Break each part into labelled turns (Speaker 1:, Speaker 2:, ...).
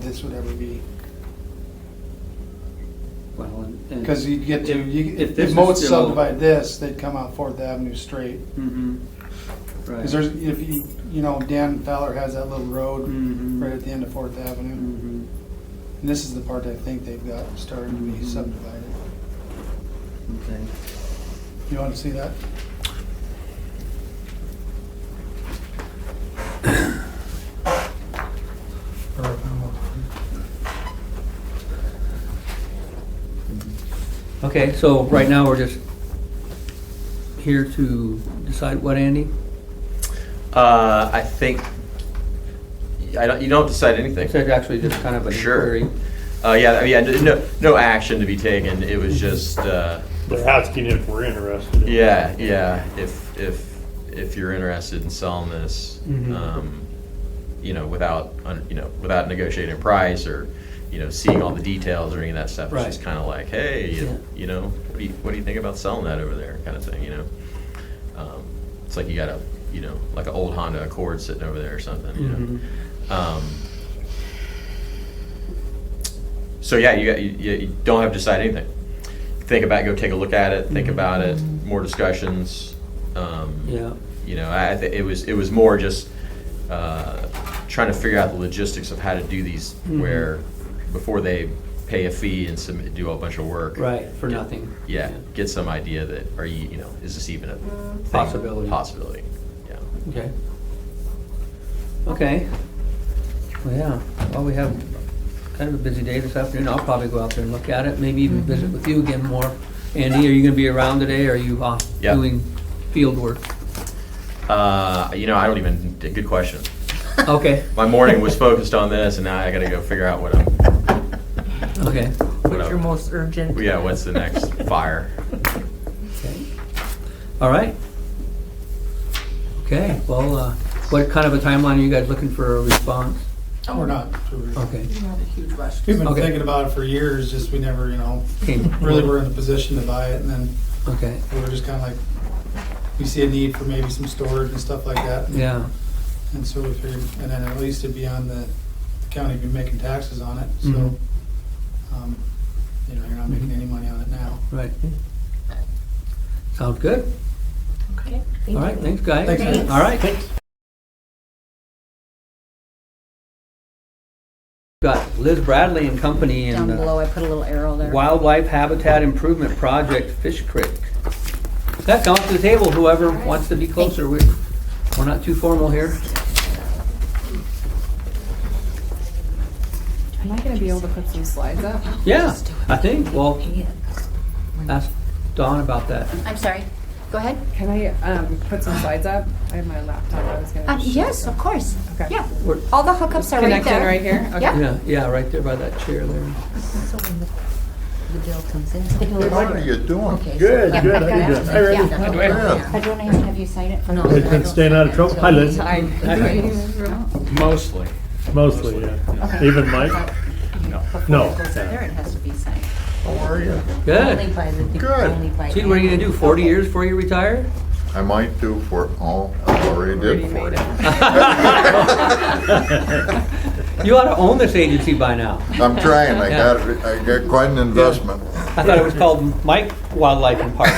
Speaker 1: this would ever be,
Speaker 2: Well, and- and-
Speaker 1: because you get to,
Speaker 2: If-
Speaker 1: you,
Speaker 2: if
Speaker 1: if
Speaker 2: this is
Speaker 1: Moat
Speaker 2: still-
Speaker 1: subdivide this, they'd come out Fourth Avenue straight.
Speaker 2: Mhm. Right.
Speaker 1: Because there's, if you, you know, Dan Fowler has that little road
Speaker 2: Mhm.
Speaker 1: right at the end of Fourth Avenue.
Speaker 2: Mhm.
Speaker 1: And this is the part I think they've got started to be
Speaker 2: Mhm.
Speaker 1: subdivided.
Speaker 2: Mm-hmm. Okay.
Speaker 1: You want to see that?
Speaker 2: Okay, so right now, we're just here to decide what, Andy?
Speaker 3: Uh, I think I don't. You don't decide anything.
Speaker 2: It's actually just kind of a
Speaker 3: Sure.
Speaker 2: query.
Speaker 3: Uh, yeah, yeah. No, no action to be taken. It was just. Uh,
Speaker 4: They're asking if we're interested. in it.
Speaker 3: yeah, yeah. If if if you're interested in selling this,
Speaker 2: Mhm.
Speaker 3: um, you know, without un- you know, without negotiating a price or you know, seeing all the details or any of that stuff,
Speaker 2: Right.
Speaker 3: it's just kind of like, hey, you,
Speaker 2: Yeah.
Speaker 3: you know, what do you what do you think about selling that over there, kind of thing, you know. Um, it's like you got a you know, like an old Honda Accord sitting over there or something, you know.
Speaker 2: Mhm.
Speaker 3: Um, so yeah, you, you, you don't have to decide anything. Think about, go take a look at it.
Speaker 2: Mm-hmm.
Speaker 3: Think about it. More discussions. Um,
Speaker 2: Yeah.
Speaker 3: You know, I, I thi- it was it was more just uh, trying to figure out the logistics of how to do these
Speaker 2: Mhm.
Speaker 3: where before they pay a fee and submit, do a bunch of work.
Speaker 2: Right, for
Speaker 3: Get-
Speaker 2: nothing.
Speaker 3: Yeah, get some idea that are you you know is this even a thing?
Speaker 2: Possibility.
Speaker 3: Possibility. Yeah.
Speaker 2: Okay. Okay. Well, yeah, well, we have kind of a busy day this afternoon. I'll probably go out there and look at it, maybe even visit with you again more. Andy, are you gonna be around today, or are you off
Speaker 3: Yeah.
Speaker 2: doing field work?
Speaker 3: Uh, you know, I don't even. Good question.
Speaker 2: Okay,
Speaker 3: My morning was focused on this, and now I got to go figure out what I'm.
Speaker 2: okay.
Speaker 3: What
Speaker 5: What's your
Speaker 3: up?
Speaker 5: most urgent?
Speaker 3: Yeah, what's the next fire?
Speaker 2: Okay. All right. Okay, well, uh, what kind of a timeline are you guys looking for a response?
Speaker 1: Or not?
Speaker 2: Okay.
Speaker 5: Not a huge rush.
Speaker 1: We've been
Speaker 2: Okay.
Speaker 1: thinking about it for years, just we never, you know,
Speaker 2: Came-
Speaker 1: really were in the position to buy it and then
Speaker 2: Okay,
Speaker 1: we were just kind of like, we see a need for maybe some storage and stuff like that. and-
Speaker 2: yeah.
Speaker 1: And so we figured, and then at least it'd be on the, the county be making taxes on it, so,
Speaker 2: Mhm.
Speaker 1: um, you know, you're not making any money on it now.
Speaker 2: Right. Sounds good.
Speaker 5: Okay.
Speaker 2: All right, thanks, guys.
Speaker 1: Thanks, man.
Speaker 2: All right. Got Liz Bradley and Company
Speaker 6: Down
Speaker 2: and
Speaker 6: below,
Speaker 2: uh,
Speaker 6: Oh, I put a little arrow there.
Speaker 2: Wildlife Habitat Improvement Project, Fish Creek. Yeah, come up to the table, whoever wants to be closer. We're, we're not too formal here.
Speaker 6: Am I gonna be able to put some slides up?
Speaker 2: Yeah, I think, well, ask Dawn about that.
Speaker 7: I'm sorry. Go ahead.
Speaker 6: Can I, um, put some slides up? I have my laptop, I was gonna.
Speaker 7: Um,
Speaker 6: show
Speaker 7: yes,
Speaker 6: some.
Speaker 7: of course.
Speaker 6: Okay.
Speaker 7: Yeah.
Speaker 2: We're-
Speaker 7: All the hookups are right
Speaker 6: Connected
Speaker 7: there.
Speaker 6: right here? Okay.
Speaker 7: Yeah.
Speaker 2: Yeah, yeah, right there by that chair there.
Speaker 5: So when the, the bill comes in.
Speaker 8: What are you doing?
Speaker 5: Okay. so-
Speaker 4: Good,
Speaker 5: Yeah,
Speaker 4: good,
Speaker 5: I've
Speaker 4: how you
Speaker 5: got
Speaker 4: doing?
Speaker 5: it.
Speaker 4: Hi, Randy.
Speaker 5: Yeah.
Speaker 7: I
Speaker 8: Yeah.
Speaker 7: don't have to have you sign it.
Speaker 5: No,
Speaker 4: Good,
Speaker 5: I
Speaker 4: been
Speaker 5: don't
Speaker 4: staying out of
Speaker 5: sign
Speaker 4: trouble? Hi,
Speaker 5: until-
Speaker 4: Liz.
Speaker 5: I-
Speaker 3: Mostly.
Speaker 4: Mostly, yeah.
Speaker 7: Okay.
Speaker 4: Even Mike?
Speaker 5: Before
Speaker 4: No.
Speaker 5: it goes in there, it has to be signed.
Speaker 8: How are you?
Speaker 5: Only
Speaker 2: Good.
Speaker 5: by the, people-
Speaker 8: Good.
Speaker 5: only by.
Speaker 2: See, what are you gonna do, 40 years before you retire?
Speaker 8: I might do for, oh, I already did for it.
Speaker 2: You ought to own this agency by now.
Speaker 8: I'm trying, I got, I got quite an investment.
Speaker 2: I thought it was called Mike Wildlife and Park.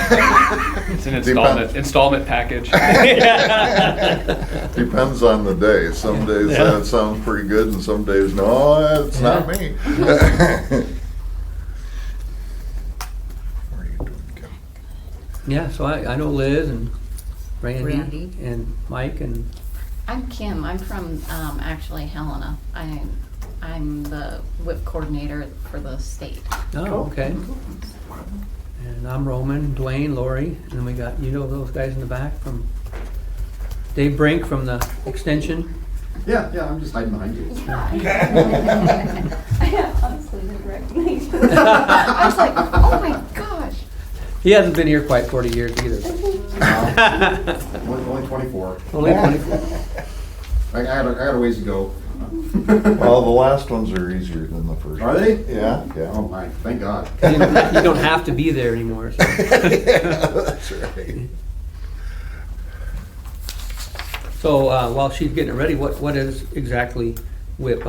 Speaker 9: It's an
Speaker 8: installment-
Speaker 9: installment package.
Speaker 8: Depends on the day. Some days
Speaker 4: Yeah.
Speaker 8: that sounds pretty good and some days, no, it's not me. What are you doing, Kim?
Speaker 2: Yeah, so I, I know Liz and Randy
Speaker 5: Randy.
Speaker 2: and Mike and,
Speaker 7: I'm Kim. I'm from um, actually Helena. I'm I'm the whip coordinator for the state.
Speaker 2: oh, okay. And I'm Roman, Dwayne, Lori, and then we got, you know those guys in the back from, Dave Brink from the extension.
Speaker 10: Yeah, yeah, I'm just hiding behind you.
Speaker 7: I honestly didn't recognize. you. I was like, oh my gosh.
Speaker 2: He hasn't been here quite 40 years either.
Speaker 10: Only, only 24.
Speaker 2: Only 24.
Speaker 10: I, I, got a, I got a ways to go.
Speaker 8: Well, the last ones are easier than the first.
Speaker 10: Are they?
Speaker 8: Yeah, yeah.
Speaker 10: Oh my, thank God.
Speaker 2: You don't you don't have to be there anymore, so.
Speaker 8: That's right.
Speaker 2: So uh, while she's getting it ready, what, what is exactly WIP?